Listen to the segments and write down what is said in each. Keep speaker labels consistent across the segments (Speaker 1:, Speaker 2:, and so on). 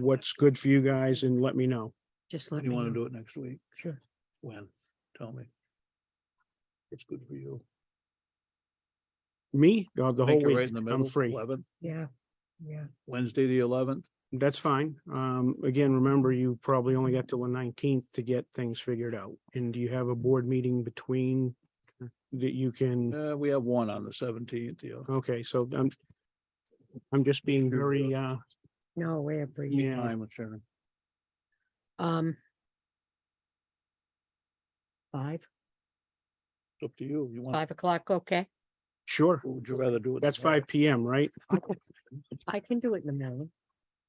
Speaker 1: what's good for you guys and let me know.
Speaker 2: Just let me
Speaker 3: You want to
Speaker 2: know.
Speaker 3: do it next week?
Speaker 2: Sure.
Speaker 3: When? Tell me. It's good for you.
Speaker 1: Me, uh, the
Speaker 3: I think
Speaker 1: whole
Speaker 3: you're
Speaker 1: week,
Speaker 3: right in the
Speaker 1: I'm
Speaker 3: middle,
Speaker 1: free.
Speaker 3: 11th,
Speaker 2: Yeah, yeah.
Speaker 3: Wednesday, the eleventh.
Speaker 1: That's fine. Um, again, remember, you probably only got till the nineteenth to get things figured out. And do you have a board meeting between that you
Speaker 2: Mm.
Speaker 1: can,
Speaker 3: Uh, we have one on the seventeenth, yeah.
Speaker 1: okay, so I'm I'm just being
Speaker 3: Sure.
Speaker 1: very, uh,
Speaker 2: No, way up for you.
Speaker 1: yeah,
Speaker 3: I'm sure.
Speaker 2: Um. Five,
Speaker 3: It's up to you. You want,
Speaker 2: five o'clock, okay.
Speaker 1: sure.
Speaker 3: would you rather do it?
Speaker 1: That's
Speaker 3: tomorrow?
Speaker 1: five P M, right?
Speaker 2: I can- I can do it in the middle.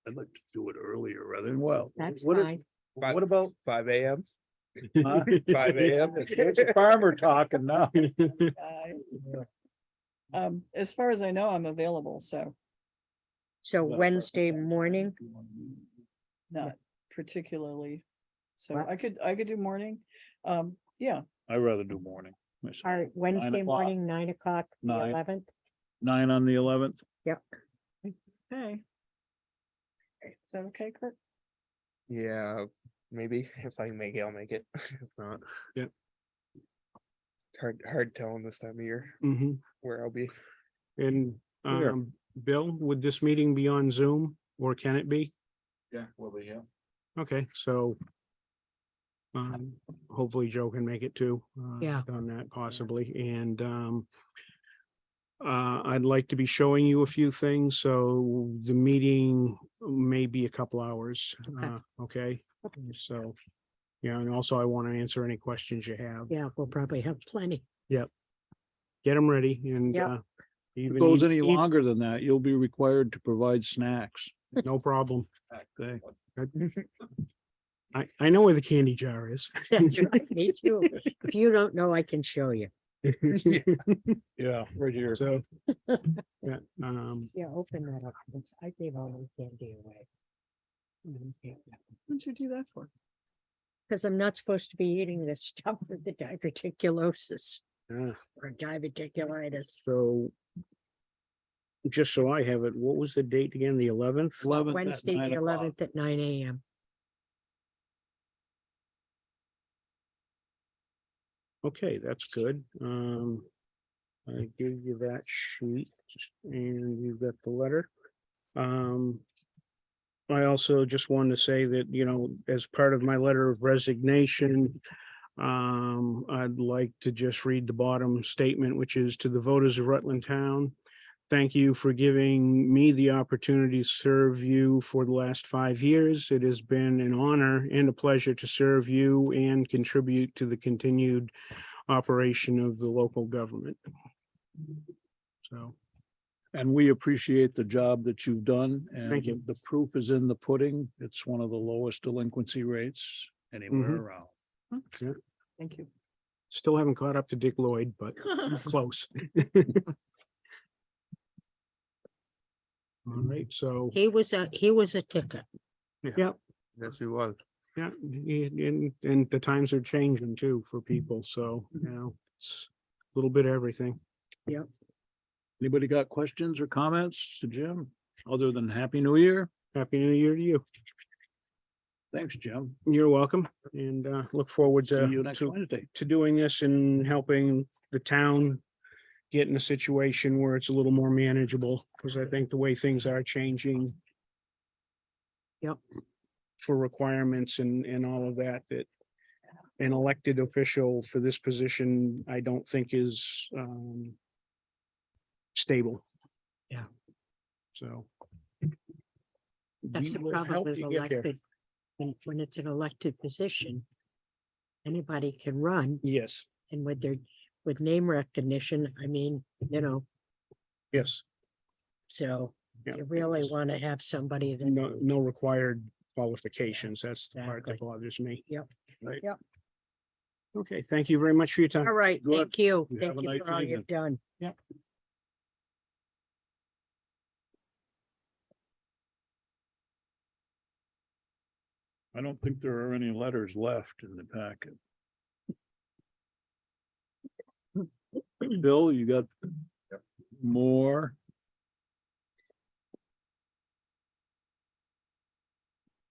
Speaker 3: I'd like to do it earlier rather than well.
Speaker 2: That's
Speaker 3: what if-
Speaker 2: fine.
Speaker 3: What about?
Speaker 4: Five AM,
Speaker 3: huh?
Speaker 4: five AM.
Speaker 3: It's a Farmer talking now.
Speaker 5: I- Um, as far as I know, I'm available, so
Speaker 2: So Wednesday morning,
Speaker 5: not particularly. So
Speaker 2: What?
Speaker 5: I could, I could do morning. Um, yeah,
Speaker 3: I'd rather do morning. myself.
Speaker 2: all right, Wednesday
Speaker 3: o'clock.
Speaker 2: morning, nine o'clock, the
Speaker 3: Nine.
Speaker 2: eleventh.
Speaker 3: Nine on the eleventh?
Speaker 2: Yep,
Speaker 5: hey. Is that okay, Kurt?
Speaker 4: Yeah, maybe if I can make it, I'll make it. If not.
Speaker 1: Yep.
Speaker 4: It's Hard, hard telling this time of year
Speaker 1: hmm
Speaker 4: where I'll be.
Speaker 1: And,
Speaker 3: Sure.
Speaker 1: um, Bill, would this meeting be on Zoom or can it be?
Speaker 3: Yeah, we'll be here.
Speaker 1: Okay, so. Um, hopefully Joe can make it too. uh,
Speaker 2: Yeah.
Speaker 1: On that possibly, and, um. Uh, I'd like to be showing you a few things, so the meeting may be a couple hours,
Speaker 2: Okay.
Speaker 1: uh, okay? So, yeah, and also I want to answer any questions you have.
Speaker 2: yeah, we'll probably have plenty.
Speaker 1: Get them ready and,
Speaker 2: Yep.
Speaker 1: uh.
Speaker 3: If
Speaker 1: even
Speaker 3: it goes
Speaker 1: eat-
Speaker 3: any
Speaker 1: eat-
Speaker 3: longer than that, you'll be required to provide snacks.
Speaker 1: No problem.
Speaker 3: Okay.
Speaker 1: I, I know where the candy jar is.
Speaker 2: That's right, Me too. If you don't know, I can show you.
Speaker 3: Yeah, right here.
Speaker 1: So. Yeah, um,
Speaker 2: Yeah, open that up. It's- I gave all my candy away. Because
Speaker 5: What'd you do that for?
Speaker 2: I'm not supposed to be eating this stuff with the diverticulosis
Speaker 1: yeah.
Speaker 2: or diverticulitis.
Speaker 1: So just so I have it, what was the date again? The eleventh?
Speaker 3: Eleventh.
Speaker 2: Wednesday, the eleventh at nine AM.
Speaker 1: Okay, that's good. Um, I gave you that sheet and you've got the letter. Um, I also just wanted to say that, you know, as part of my letter of resignation, um, I'd like to just read the bottom statement, which is to the voters of Rutland Town. Thank you for giving me the opportunity to serve you for the last five years. It has been an honor and a pleasure to serve you and contribute to the continued operation of the local government. So,
Speaker 3: And we appreciate the job that you've done and
Speaker 1: Thank you.
Speaker 3: the proof is in the pudding. It's one of the lowest delinquency rates anywhere
Speaker 1: Mhm.
Speaker 3: around.
Speaker 5: Thank you.
Speaker 1: still haven't caught up to Dick Lloyd, but close. All right, so,
Speaker 2: He was a, he was a ticket.
Speaker 1: yeah,
Speaker 4: Yes, we was.
Speaker 1: yeah, and, and- and the times are changing too for people, so, you know, it's a little bit of everything.
Speaker 3: Anybody got questions or comments to Jim? Other than Happy New Year?
Speaker 1: Happy New Year to you.
Speaker 3: Thanks, Jim.
Speaker 1: You're welcome, and, uh, look forward
Speaker 3: See you
Speaker 1: to,
Speaker 3: next
Speaker 1: to
Speaker 3: Wednesday.
Speaker 1: to doing this and helping the town get in a situation where it's a little more manageable, because I think the way things are changing.
Speaker 2: Yep.
Speaker 1: For requirements and, and all of that, that an elected official for this position, I don't think is, um, stable.
Speaker 2: Yeah.
Speaker 1: So.
Speaker 2: That's
Speaker 1: we
Speaker 2: the
Speaker 1: will
Speaker 2: problem
Speaker 1: help
Speaker 2: with
Speaker 1: you get there.
Speaker 2: elected. When when it's an elected position, anybody can run
Speaker 1: Yes,
Speaker 2: and with their, with name recognition, I mean, you know,
Speaker 1: yes,
Speaker 2: so
Speaker 1: Yeah.
Speaker 2: you really want to have somebody that
Speaker 1: no, no required qualifications. That's the part that
Speaker 2: Exactly.
Speaker 1: bothers me.
Speaker 2: Yep.
Speaker 3: Right.
Speaker 2: Yep.
Speaker 1: Okay, thank you very much for your time.
Speaker 2: All right,
Speaker 3: Good.
Speaker 2: thank you.
Speaker 3: You have
Speaker 2: Thank
Speaker 3: a
Speaker 2: you
Speaker 3: nice
Speaker 2: for all
Speaker 3: evening.
Speaker 2: you've done.
Speaker 3: I don't think there are any letters left in the packet. Bill, you got more?